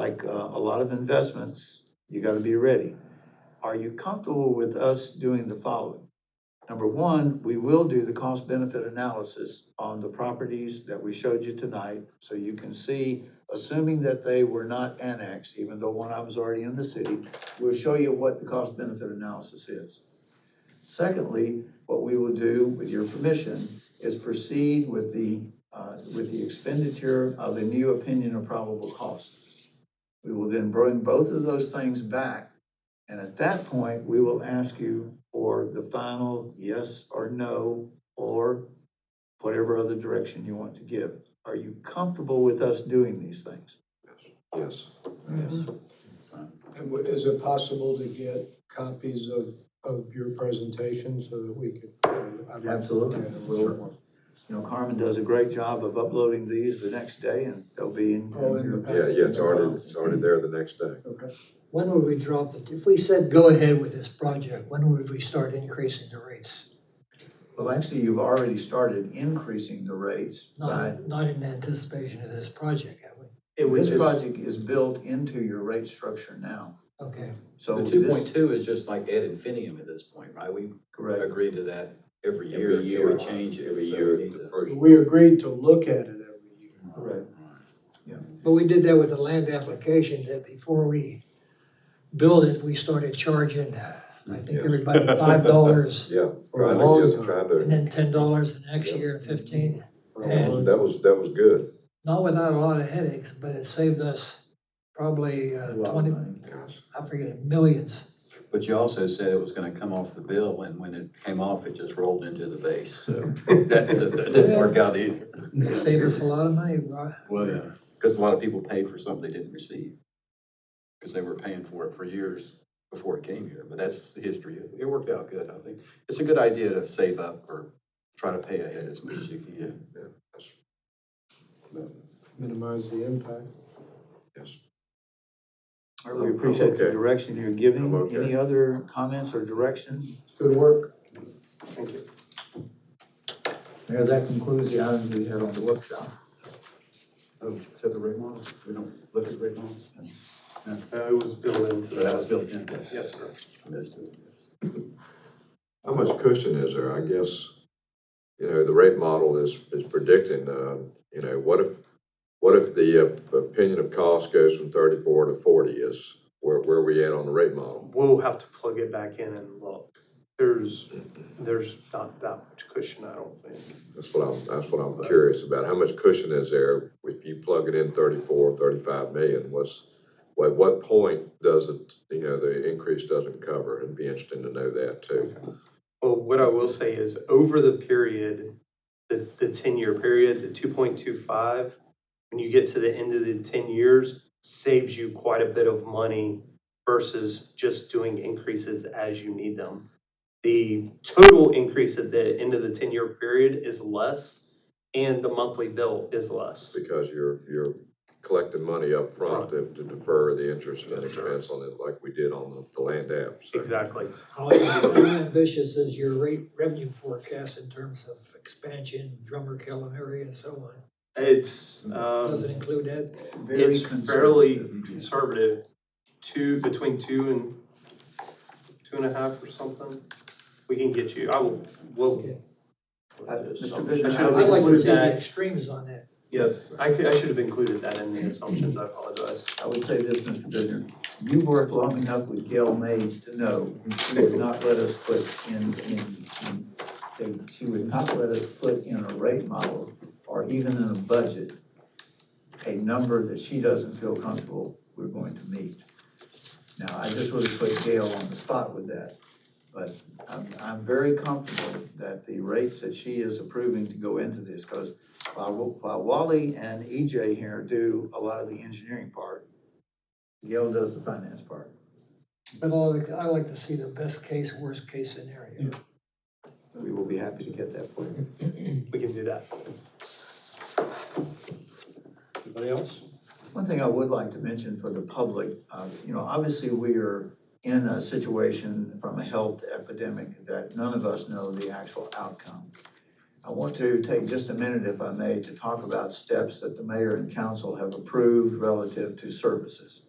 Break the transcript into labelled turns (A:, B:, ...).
A: like uh, a lot of investments, you gotta be ready. Are you comfortable with us doing the following? Number one, we will do the cost benefit analysis on the properties that we showed you tonight. So you can see, assuming that they were not annexed, even though one of them's already in the city, we'll show you what the cost benefit analysis is. Secondly, what we will do, with your permission, is proceed with the, uh, with the expenditure of a new opinion of probable cost. We will then bring both of those things back, and at that point, we will ask you for the final yes or no, or whatever other direction you want to give. Are you comfortable with us doing these things?
B: Yes.
C: Mm-hmm. And wa- is it possible to get copies of, of your presentation so that we could? I'd like to look
A: Absolutely.
C: at it.
A: We'll- You know, Carmen does a great job of uploading these the next day, and they'll be in.
C: Oh, in the
A: your-
B: Yeah, yeah, it's already, it's already there the next day.
C: Okay.
D: When would we drop the, if we said go ahead with this project, when would we start increasing the rates?
A: Well, actually, you've already started increasing the rates by,
D: Not, not in anticipation of this project, have we?
A: this project is built into your rate structure now.
D: Okay,
A: So
E: The two
A: this,
E: point two is just like ad infinitum at this point, right? We
A: correct,
E: agree to that every year. and We change it,
B: Every
E: so we
B: year,
E: need
B: the
E: to-
B: first.
C: We agreed to look at it every year.
A: correct.
D: but we did that with the land application, that before we build it, we started charging, I think
B: Yes.
D: everybody five dollars,
B: Yeah,
C: For a
B: trying
C: long
B: to,
C: time.
B: get- trying
D: and
B: to,
D: then ten dollars the next
B: Yep.
D: year, and fifteen.
C: for a long
D: And-
B: that was, that was good.
D: Not without a lot of headaches, but it saved us probably
A: A
D: uh,
A: lot of
D: twenty,
A: money.
B: Yes.
D: I forget, millions.
E: But you also said it was gonna come off the bill, and when it came off, it just rolled into the base, so that's, that didn't work out either.
D: It saved us a lot of money, right?
E: Well, yeah. Because a lot of people paid for something they didn't receive, because they were paying for it for years before it came here, but that's the history. It- It worked out good, I think. It's a good idea to save up or try to pay ahead as much as you can.
C: Minimize the impact.
A: All right, We appreciate the
B: Okay.
A: direction you're giving.
B: I'm okay.
A: Any other comments or direction?
C: Good work. Thank you.
A: Mayor, that concludes the items we had on the workshop.
E: Oh, except the rate model, we don't look at rate models?
F: Uh, It was built into
E: That was
F: that.
E: built in, yes.
F: Yes, sir.
E: That's true, yes.
B: How much cushion is there? I guess, you know, the rate model is, is predicting, uh, you know, what if, what if the uh, opinion of cost goes from thirty-four to forty is where, where we at on the rate model?
F: We'll have to plug it back in and look. There's, there's not that much cushion, I don't think.
B: That's what I'm, that's what I'm curious about. How much cushion is there if you plug it in 34, 35 million? What's, at what point does it, you know, the increase doesn't cover? It'd be interesting to know that too.
F: Well, what I will say is over the period, the, the ten-year period, the two point two five, when you get to the end of the ten years, saves you quite a bit of money versus just doing increases as you need them. The total increase at the end of the ten-year period is less and the monthly bill is less.
B: Because you're, you're collecting money up front to to defer the interest and
F: Yes, sir.
B: expense on it like we did on the, the land app. so.
F: Exactly.
D: How ambitious is your rate revenue forecast in terms of expansion, Drummer, Kellum area and so on?
F: It's,
D: Does it
F: um,
D: include that?
A: Very
F: it's fairly
A: conservative.
F: conservative, two, between two and, two and a half or something. We can get you, I will, well,
A: Uh, Mr. Bishop,
F: I should
A: how
F: have
A: would you-
D: I'd like to
F: include
D: see the
F: that.
D: extremes on that.
F: yes, I could, I should have included that in the assumptions, I apologize.
A: I would say this, Mr. Bittner, you worked long enough with Gail Mays to know she would not let us put in, in, in- they- she would not let us put in a rate model or even in a budget, a number that she doesn't feel comfortable we're going to meet. Now, I just would have put Gail on the spot with that, but I'm, I'm very comfortable that the rates that she is approving to go into this, because while, while Wally and EJ here do a lot of the engineering part, Gail does the finance part.
D: But I like, I like to see the best case, worst case scenario.
A: We will be happy to get that for you.
F: We can do that.
G: Anybody else?
A: One thing I would like to mention for the public, uh, you know, obviously, we are in a situation from a health epidemic that none of us know the actual outcome. I want to take just a minute, if I may, to talk about steps that the mayor and council have approved relative to services.